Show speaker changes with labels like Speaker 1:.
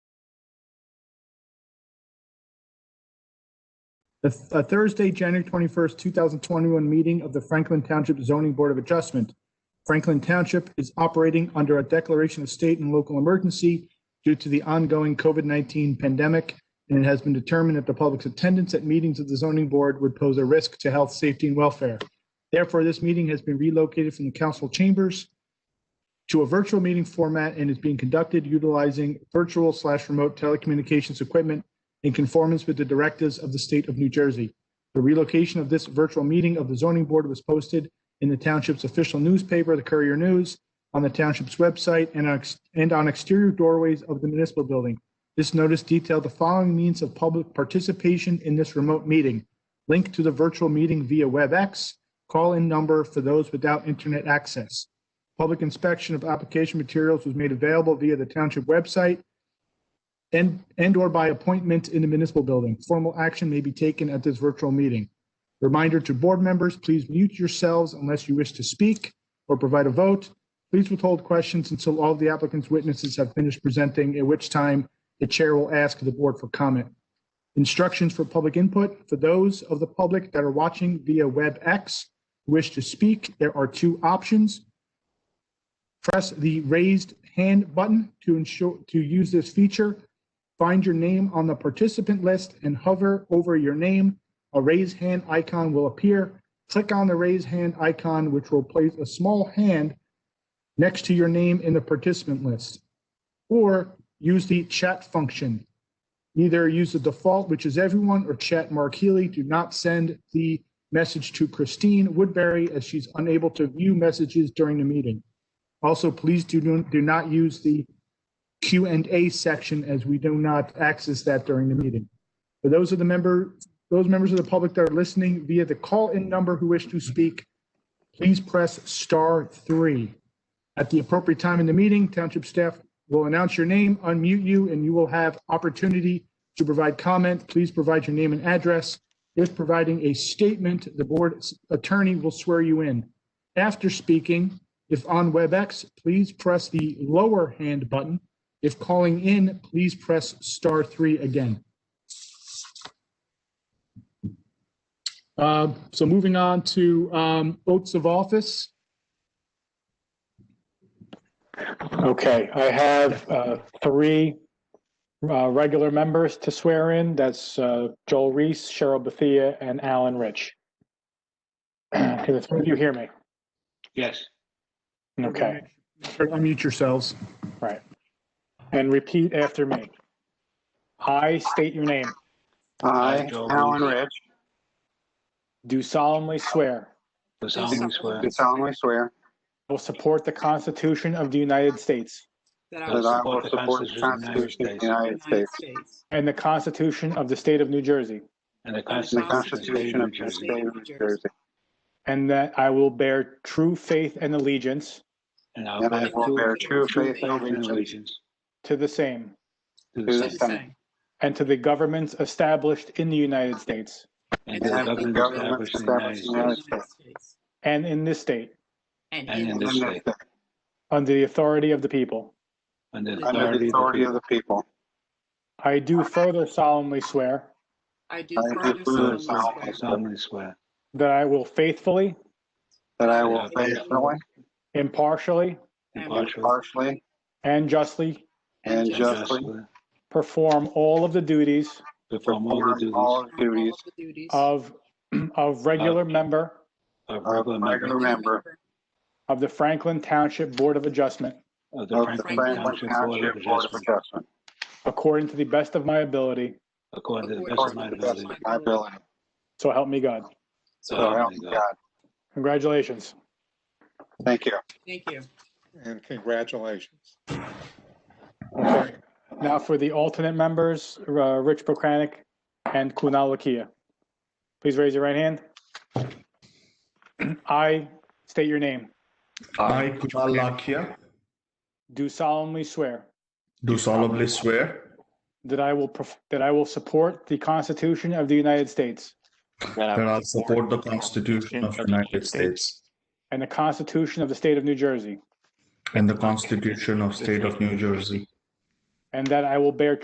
Speaker 1: The th- uh, Thursday, January 21st, 2021 meeting of the Franklin Township Zoning Board of Adjustment. Franklin Township is operating under a declaration of state and local emergency due to the ongoing COVID-19 pandemic, and it has been determined that the public's attendance at meetings of the zoning board would pose a risk to health, safety, and welfare. Therefore, this meeting has been relocated from the council chambers to a virtual meeting format and is being conducted utilizing virtual slash remote telecommunications equipment in conformance with the directives of the state of New Jersey. The relocation of this virtual meeting of the zoning board was posted in the township's official newspaper, the Courier News, on the township's website and on, ex- and on exterior doorways of the municipal building. This notice detailed the following means of public participation in this remote meeting. Link to the virtual meeting via WebEx, call-in number for those without internet access. Public inspection of application materials was made available via the township website and, and/or by appointment in the municipal building. Formal action may be taken at this virtual meeting. Reminder to board members, please mute yourselves unless you wish to speak or provide a vote. Please withhold questions until all of the applicant's witnesses have finished presenting, at which time the chair will ask the board for comment. Instructions for public input. For those of the public that are watching via WebEx who wish to speak, there are two options press the raised hand button to ensure, to use this feature. Find your name on the participant list and hover over your name. A raise hand icon will appear. Click on the raise hand icon, which will place a small hand next to your name in the participant list. Or use the chat function. Either use the default, which is everyone, or chat Mark Healy. Do not send the message to Christine Woodbury as she's unable to view messages during the meeting. Also, please do, do not use the Q and A section as we do not access that during the meeting. For those of the member, those members of the public that are listening via the call-in number who wish to speak, please press star three. At the appropriate time in the meeting, township staff will announce your name, unmute you, and you will have opportunity to provide comment. Please provide your name and address. If providing a statement, the board attorney will swear you in. After speaking, if on WebEx, please press the lower hand button. If calling in, please press star three again. Uh, So moving on to um, oaths of office.
Speaker 2: Okay, I have uh, three uh, regular members to swear in. That's uh, Joel Reese, Cheryl Bethia, and Alan Rich. Can the three of you hear me?
Speaker 3: Yes,
Speaker 2: Okay,
Speaker 1: Unmute yourselves.
Speaker 2: and repeat after me. I state your name,
Speaker 3: I,
Speaker 4: I,
Speaker 3: Joe
Speaker 4: Alan
Speaker 3: Russo.
Speaker 4: Rich,
Speaker 2: do solemnly swear
Speaker 3: the solemnly swear
Speaker 4: do solemnly swear
Speaker 2: I will support the Constitution of the United States
Speaker 5: That I
Speaker 4: that
Speaker 5: will
Speaker 4: I will support the Constitution of the
Speaker 5: support
Speaker 4: United
Speaker 5: the United
Speaker 4: States
Speaker 5: States.
Speaker 2: and the Constitution of the State of New Jersey,
Speaker 3: and the
Speaker 4: and the
Speaker 3: Constitution of the State
Speaker 4: Constitution
Speaker 3: of
Speaker 4: of
Speaker 3: New
Speaker 4: the
Speaker 3: Jersey,
Speaker 4: State of New Jersey,
Speaker 2: and that I will bear true faith and allegiance
Speaker 3: and
Speaker 4: and I will bear true faith and allegiance
Speaker 3: allegiance
Speaker 2: to the same
Speaker 3: to
Speaker 4: to
Speaker 3: the
Speaker 4: the
Speaker 3: same,
Speaker 4: Senate
Speaker 2: and to the governments established in the United States
Speaker 3: and
Speaker 4: and
Speaker 3: to the
Speaker 4: to the
Speaker 3: government
Speaker 4: government
Speaker 3: established in the United
Speaker 4: established in the
Speaker 3: States
Speaker 4: United States
Speaker 5: United States.
Speaker 2: and in this state
Speaker 5: And
Speaker 3: and
Speaker 5: in
Speaker 3: in
Speaker 4: and
Speaker 5: this
Speaker 3: this
Speaker 4: this
Speaker 3: state,
Speaker 4: state,
Speaker 2: under the authority of the people.
Speaker 3: under the
Speaker 4: under the authority of
Speaker 3: the
Speaker 4: the people.
Speaker 2: I do further solemnly swear
Speaker 5: I do
Speaker 4: I do
Speaker 5: further
Speaker 3: people,
Speaker 4: further
Speaker 5: solemnly swear
Speaker 3: solemnly swear
Speaker 2: that I will faithfully,
Speaker 4: That I will
Speaker 3: I will
Speaker 4: faithfully,
Speaker 2: impartially,
Speaker 5: and
Speaker 3: impartially,
Speaker 4: partially,
Speaker 2: and justly
Speaker 4: and
Speaker 5: and
Speaker 3: and
Speaker 4: justly
Speaker 5: justly
Speaker 3: justly
Speaker 2: perform all of the duties
Speaker 3: perform all the
Speaker 4: perform all
Speaker 3: duties
Speaker 5: perform
Speaker 4: duties
Speaker 5: all of the duties
Speaker 2: of, of regular member
Speaker 3: of
Speaker 4: of
Speaker 3: regular member
Speaker 4: regular member
Speaker 2: of the Franklin Township Board of Adjustment
Speaker 3: of the
Speaker 4: of the
Speaker 3: Franklin Township
Speaker 4: Franklin
Speaker 3: Board of
Speaker 4: Township Board of
Speaker 3: Adjustment,
Speaker 4: Adjustment,
Speaker 2: according to the best of my ability,
Speaker 3: according to the best of
Speaker 4: according
Speaker 3: my
Speaker 4: to the best
Speaker 3: ability.
Speaker 4: of my ability.
Speaker 2: so help me God.
Speaker 3: So
Speaker 4: So help me God.
Speaker 2: Congratulations.
Speaker 4: Thank you.
Speaker 5: Thank you.
Speaker 6: And congratulations.
Speaker 2: Okay. Now for the alternate members, uh, Rich Prokranik and Kunal Lakia. Please raise your right hand. I state your name,
Speaker 7: I, Kunal Lakhia,
Speaker 2: do solemnly swear
Speaker 7: do solemnly swear
Speaker 2: That I will, perf- that I will support the Constitution of the United States
Speaker 7: that I'll support the Constitution of the United States
Speaker 2: and the Constitution of the State of New Jersey,
Speaker 7: and the Constitution of State of New Jersey,
Speaker 2: and that I will bear